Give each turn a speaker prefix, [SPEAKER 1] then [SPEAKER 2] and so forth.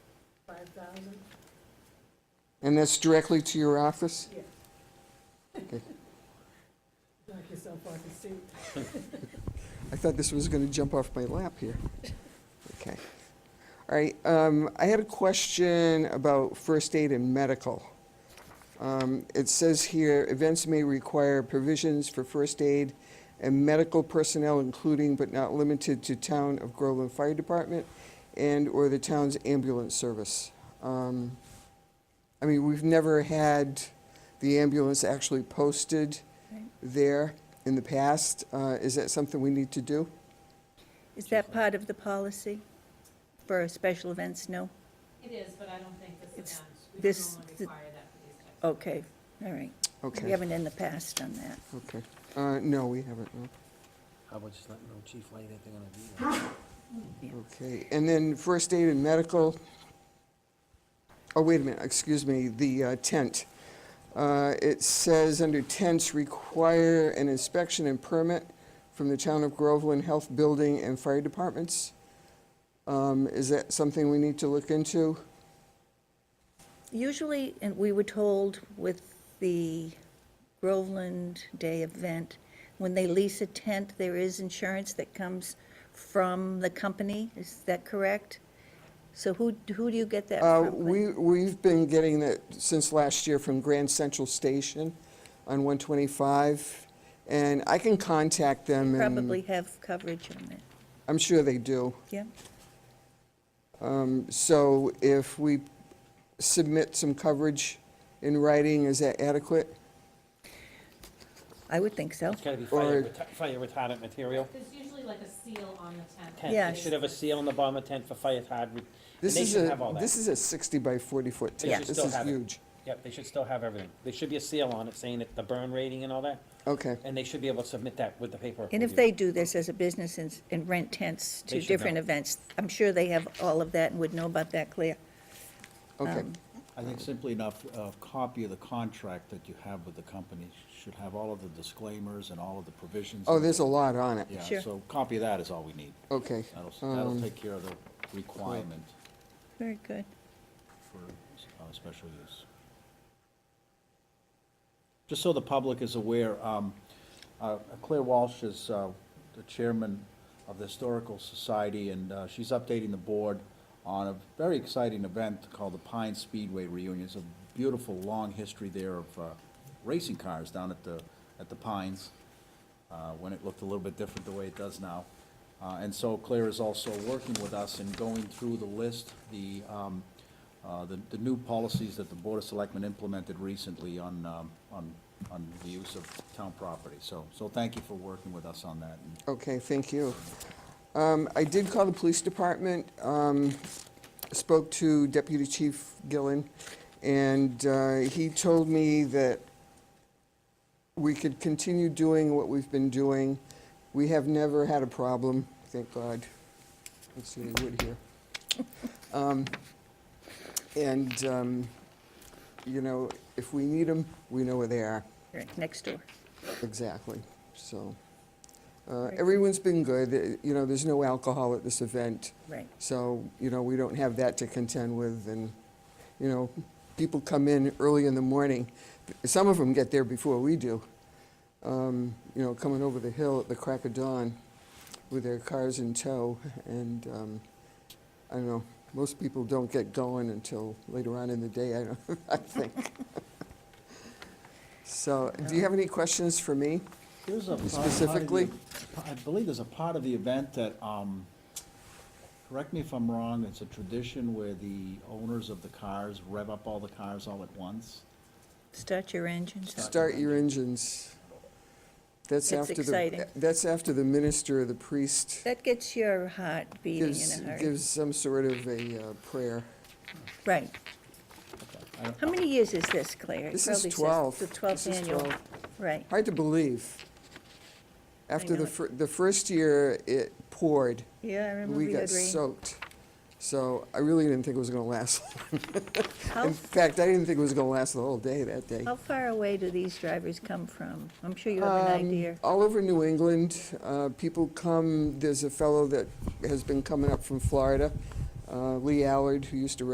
[SPEAKER 1] Five thousand?
[SPEAKER 2] And that's directly to your office?
[SPEAKER 1] Yeah. Knock yourself off your seat.
[SPEAKER 2] I thought this was going to jump off my lap here. Okay. All right, um, I had a question about first aid and medical. Um, It says here, events may require provisions for first aid and medical personnel, including but not limited to Town of Groveland Fire Department and/or the town's ambulance service. Um, I mean, we've never had the ambulance actually posted there in the past. Uh, Is that something we need to do?
[SPEAKER 3] Is that part of the policy for special events? No?
[SPEAKER 4] It is, but I don't think this
[SPEAKER 3] It's-
[SPEAKER 4] event, we don't
[SPEAKER 3] this-
[SPEAKER 4] normally
[SPEAKER 3] the-
[SPEAKER 4] require that for these types. of
[SPEAKER 3] Okay, all right.
[SPEAKER 2] Okay.
[SPEAKER 3] We haven't in the past done that.
[SPEAKER 2] Okay. Uh, no, we haven't, no.
[SPEAKER 5] How about just letting know Chief Light if they're gonna be there?
[SPEAKER 2] Okay, and then first aid and medical. Oh, wait a minute, excuse me, the uh, tent. Uh, it says under tents require an inspection and permit from the town of Groveland Health Building and Fire Departments. Um, is that something we need to look into?
[SPEAKER 3] Usually, and we were told with the Groveland Day event, when they lease a tent, there is insurance that comes from the company. Is that correct? So who, who do you get that
[SPEAKER 2] Uh,
[SPEAKER 3] from?
[SPEAKER 2] we, we've been getting that since last year from Grand Central Station on 125. And I can contact them and.
[SPEAKER 3] Probably have coverage on it,
[SPEAKER 2] I'm sure they do. Um,
[SPEAKER 3] yeah?
[SPEAKER 2] So if we submit some coverage in writing, is that adequate?
[SPEAKER 3] I would think so.
[SPEAKER 6] It's gotta be
[SPEAKER 2] Or-
[SPEAKER 6] fire reta- fire retardant material.
[SPEAKER 4] There's usually like a seal on the tent.
[SPEAKER 6] Tent,
[SPEAKER 3] Yeah.
[SPEAKER 6] they should have a seal on the bottom of tent for fire retardant, and
[SPEAKER 2] This
[SPEAKER 6] they
[SPEAKER 2] is
[SPEAKER 6] should
[SPEAKER 2] a,
[SPEAKER 6] have all
[SPEAKER 2] this
[SPEAKER 6] that.
[SPEAKER 2] is a 60 by 40 foot
[SPEAKER 6] They
[SPEAKER 2] tent.
[SPEAKER 6] should
[SPEAKER 2] This
[SPEAKER 6] still
[SPEAKER 2] is
[SPEAKER 6] have it.
[SPEAKER 2] huge.
[SPEAKER 6] Yep, they should still have everything. There should be a seal on it saying that the burn rating and all that,
[SPEAKER 2] Okay,
[SPEAKER 6] and they should be able to submit that with the paperwork.
[SPEAKER 3] And if
[SPEAKER 6] with you.
[SPEAKER 3] they do this as a business and, s- and rent tents
[SPEAKER 6] They
[SPEAKER 3] to
[SPEAKER 6] should
[SPEAKER 3] different
[SPEAKER 6] know.
[SPEAKER 3] events, I'm sure they have all of that and would know about that, Claire.
[SPEAKER 2] okay.
[SPEAKER 5] I think simply enough, a copy of the contract that you have with the company should have all of the disclaimers and all of the provisions.
[SPEAKER 2] Oh, there's a lot on it.
[SPEAKER 5] Yeah,
[SPEAKER 3] Sure.
[SPEAKER 5] so copy of that is all we need.
[SPEAKER 2] Okay.
[SPEAKER 5] That'll, that'll
[SPEAKER 2] Um,
[SPEAKER 5] take care of the requirement
[SPEAKER 3] Very good.
[SPEAKER 5] for uh, special use. Just so the public is aware, um, uh, Claire Walsh is uh, the chairman of the Historical Society, and uh, she's updating the board on a very exciting event called the Pine Speedway Reunion. It's a beautiful, long history there of uh, racing cars down at the, at the Pines, uh, when it looked a little bit different the way it does now. Uh, And so Claire is also working with us and going through the list, the, um, uh, the, the new policies that the Board of Selectmen implemented recently on, um, on, on the use of town property. So, so thank you for working with us on that. And
[SPEAKER 2] Okay, thank you. Um, I did call the police department, um, spoke to Deputy Chief Gillen, and uh, he told me that we could continue doing what we've been doing. We have never had a problem, thank God. Let's see, they would here. Um, And, um, you know, if we need them, we know where they are.
[SPEAKER 3] Right, next door.
[SPEAKER 2] Exactly, so. uh,
[SPEAKER 3] Right.
[SPEAKER 2] Everyone's been good, Uh, you know, there's no alcohol at this event,
[SPEAKER 3] Right,
[SPEAKER 2] so, you know, we don't have that to contend with, and, you know, people come in early in the morning, some of them get there before we do, Um, you know, coming over the hill at the crack of dawn with their cars in tow, and, um, I don't know, most people don't get going until later on in the day, I don't, I think. So, do you have any questions for me?
[SPEAKER 5] There's a. part- part of the-
[SPEAKER 2] Specifically?
[SPEAKER 5] I believe there's a part of the event that, um, correct me if I'm wrong, it's a tradition where the owners of the cars rev up all the cars all at once.
[SPEAKER 3] start your engines. up.
[SPEAKER 2] Start your engines. That's
[SPEAKER 3] It's
[SPEAKER 2] after
[SPEAKER 3] exciting.
[SPEAKER 2] the, that's after the minister or the priest
[SPEAKER 3] That gets your heart beating
[SPEAKER 2] gives,
[SPEAKER 3] in a hurry.
[SPEAKER 2] gives some sort of a uh, prayer.
[SPEAKER 3] Right.
[SPEAKER 5] I don't-
[SPEAKER 3] How many years is this, Claire? It
[SPEAKER 2] This
[SPEAKER 3] probably
[SPEAKER 2] is
[SPEAKER 3] says
[SPEAKER 2] 12.
[SPEAKER 3] The
[SPEAKER 2] This
[SPEAKER 3] 12th
[SPEAKER 2] is
[SPEAKER 3] annual,
[SPEAKER 2] 12.
[SPEAKER 3] right.
[SPEAKER 2] Hard to believe. After
[SPEAKER 3] know
[SPEAKER 2] the,
[SPEAKER 3] it.
[SPEAKER 2] fir- the first year, it poured.
[SPEAKER 3] Yeah, I remember
[SPEAKER 2] We
[SPEAKER 3] we
[SPEAKER 2] got
[SPEAKER 3] had rain.
[SPEAKER 2] soaked. So I really didn't think it was going to last.
[SPEAKER 3] How,
[SPEAKER 2] In fact, I didn't think it was going to last the whole day that day.
[SPEAKER 3] how far away do these drivers come from? I'm sure you have an
[SPEAKER 2] Um,
[SPEAKER 3] idea.
[SPEAKER 2] All over New England, uh, people come, there's a fellow that has been coming up from Florida, uh, Lee Allard, who used to